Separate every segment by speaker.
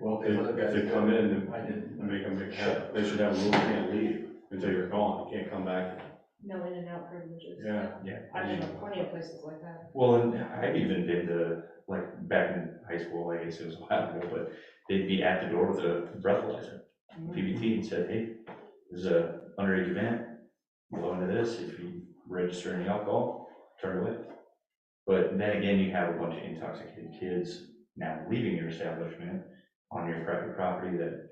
Speaker 1: If, if they come in
Speaker 2: I didn't.
Speaker 1: and make them, make- have- they should have a rule, they can't leave until you're gone, you can't come back.
Speaker 3: No in and out privileges.
Speaker 1: Yeah.
Speaker 4: Yeah.
Speaker 3: I mean, plenty of places like that.
Speaker 4: Well, and I even did the, like, back in high school, I guess it was a while ago, but they'd be at the door with a breathalyzer, PBT, and said, hey, there's a underage event, blow into this, if you register any alcohol, turn away. But then again, you have a bunch of intoxicated kids now leaving your establishment on your private property that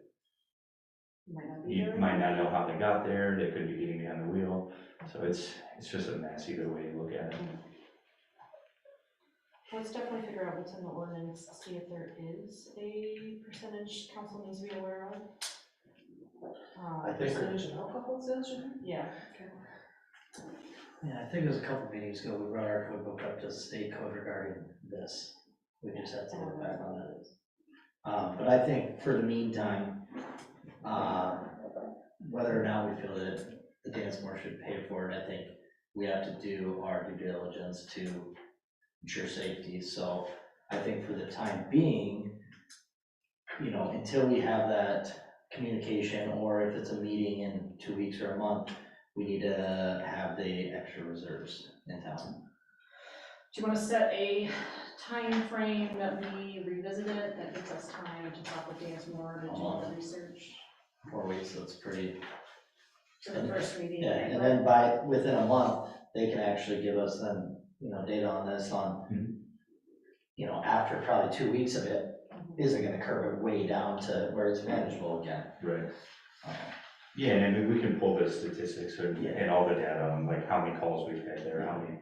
Speaker 3: Might not be
Speaker 4: you
Speaker 3: there.
Speaker 4: might not know how they got there, they could be getting behind the wheel, so it's, it's just a mess either way you look at it.
Speaker 3: Let's definitely figure out what's in the ordinance, see if there is a percentage council needs to be aware of. Uh,
Speaker 5: I think-
Speaker 6: Percentage of alcohol sales, you mean?
Speaker 3: Yeah,
Speaker 5: Yeah, I think it was a couple meetings ago, we brought our code book up to the state code regarding this. We just have to look back on it. Uh, but I think for the meantime, uh, whether or not we feel that the dance more should pay for it, I think we have to do our due diligence to ensure safety, so I think for the time being, you know, until we have that communication, or if it's a meeting in two weeks or a month, we need to have the extra reserves in town.
Speaker 6: Do you wanna set a time frame that we revisit it, that gives us time to talk with Dance Moore, to do all
Speaker 5: Uh-huh.
Speaker 6: the research
Speaker 5: Four weeks, so it's pretty,
Speaker 6: for the first meeting?
Speaker 5: yeah, and then by, within a month, they can actually give us then, you know, data on this on, you know, after probably two weeks of it,
Speaker 3: Mm-hmm.
Speaker 5: is it gonna curve it way down to where it's manageable again?
Speaker 4: Right.
Speaker 5: Uh,
Speaker 4: Yeah, and I mean, we can pull the statistics and,
Speaker 5: Yeah.
Speaker 4: and all the data on like how many calls we've had there, how many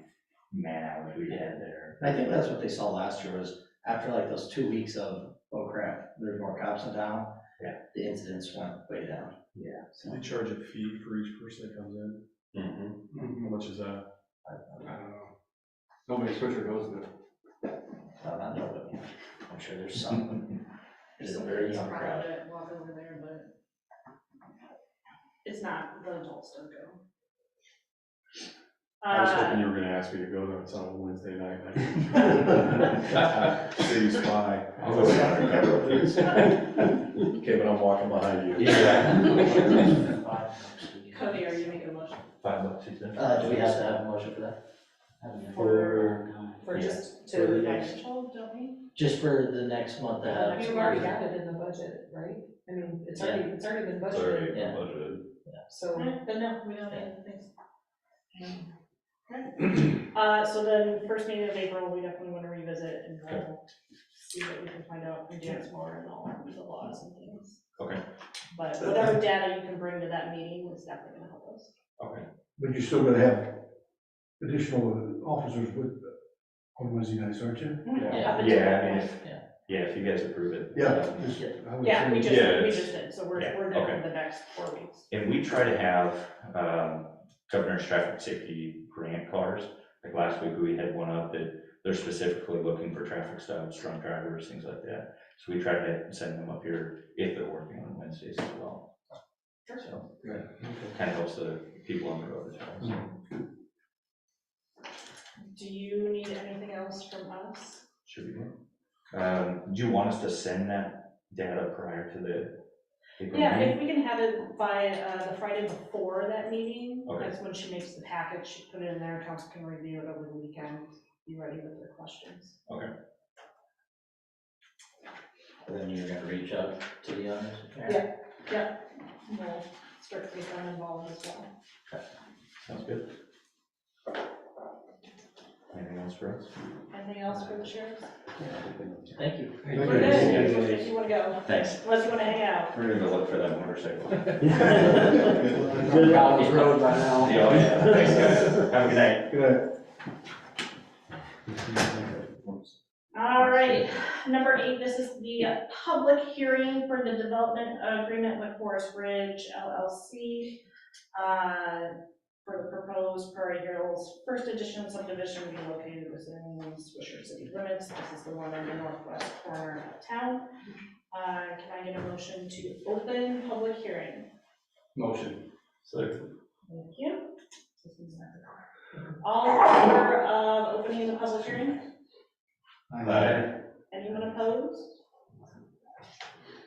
Speaker 4: man hours we had there.
Speaker 5: And I think that's what they saw last year was after like those two weeks of, oh crap, there's more cops in town.
Speaker 4: Yeah.
Speaker 5: The incidents went way down.
Speaker 1: So they charge a fee for each person that comes in, how much is that?
Speaker 2: I don't know. Nobody Swisher goes there.
Speaker 5: Well, not nobody. I'm sure there's some. It's a very young
Speaker 6: Somebody's
Speaker 5: crowd.
Speaker 6: proud of it, walk over there, but it's not, the adults don't go.
Speaker 1: I was
Speaker 6: Uh,
Speaker 1: hoping you were gonna ask me to go there, it's on a Wednesday night. I- City spy.
Speaker 4: I'll go down and cover it, please.
Speaker 1: Okay, but I'm walking behind you.
Speaker 4: Yeah.
Speaker 6: Cody, are you making a motion
Speaker 4: Five bucks, six cents.
Speaker 5: Uh, do we have to have a motion for that?
Speaker 6: for, for
Speaker 4: Yeah.
Speaker 6: just
Speaker 1: For
Speaker 6: to
Speaker 1: the
Speaker 6: financial, don't we?
Speaker 5: Just for the next month to have.
Speaker 6: I
Speaker 3: I mean, we already got it in the budget, right? I mean, it's already, it's already been budgeted,
Speaker 4: Sorry,
Speaker 5: Yeah.
Speaker 4: budgeted.
Speaker 3: so.
Speaker 6: Alright, Then no, we don't need anything. Uh, so then, first meeting of April, we definitely wanna revisit and we'll see what we can find out from James Moore and all the laws and things.
Speaker 4: Okay.
Speaker 6: But whatever data you can bring to that meeting is definitely gonna help us.
Speaker 4: Okay,
Speaker 7: But you're still gonna have additional officers with, on Wednesday nights, aren't you?
Speaker 1: Yeah.
Speaker 6: Up until
Speaker 4: yeah,
Speaker 6: that
Speaker 4: I mean,
Speaker 6: point.
Speaker 4: if,
Speaker 5: Yeah.
Speaker 4: yeah, if you guys approve it.
Speaker 7: Yeah,
Speaker 4: um,
Speaker 7: just- I would
Speaker 6: Yeah, we
Speaker 7: say-
Speaker 6: just,
Speaker 4: Yeah,
Speaker 6: we
Speaker 4: it's-
Speaker 6: just did, so we're,
Speaker 4: yeah,
Speaker 6: we're good
Speaker 4: okay.
Speaker 6: for the next four weeks.
Speaker 4: And we try to have, um, governor's traffic safety grant cars. Like last week, we had one up that they're specifically looking for traffic stops, drunk drivers, things like that. So we try to send them up here if they're working on Wednesdays as well. So, kind of helps the people on the road as well. so.
Speaker 6: Do you need anything else from us?
Speaker 4: Should be good. Um, do you want us to send that data prior to the? April
Speaker 6: Yeah,
Speaker 4: meeting?
Speaker 6: if we can have it by uh, the Friday before that meeting,
Speaker 4: Okay.
Speaker 6: that's when she makes the package, she put it in there, council can review it over the weekend, be ready with their questions.
Speaker 5: And then you're gonna reach out to the owners?
Speaker 6: Yeah. Yeah, we'll strictly them involved as well.
Speaker 4: Sounds good. Anything else for us?
Speaker 6: Anything else for the sheriffs?
Speaker 5: Thank you.
Speaker 7: you.
Speaker 6: We're good, if you wanna go,
Speaker 4: Thanks.
Speaker 6: unless you wanna hang out.
Speaker 4: We're gonna go look for that motorcycle.
Speaker 7: Get it out of the road by now.
Speaker 5: oh,
Speaker 4: Yeah, yeah. Thanks, guys. Have a good night.
Speaker 7: Good.
Speaker 6: All right, number eight, this is the public hearing for the development agreement with Forest Ridge LLC uh, for the proposed Prairie Hills First Edition subdivision to be located within Swisher City limits. This is the one on the northwest corner of town. Uh, Can I get a motion to open public hearing?
Speaker 2: Motion.
Speaker 4: So,
Speaker 6: Thank you. All in favor of opening the public hearing?
Speaker 4: bye.
Speaker 6: Anyone opposed?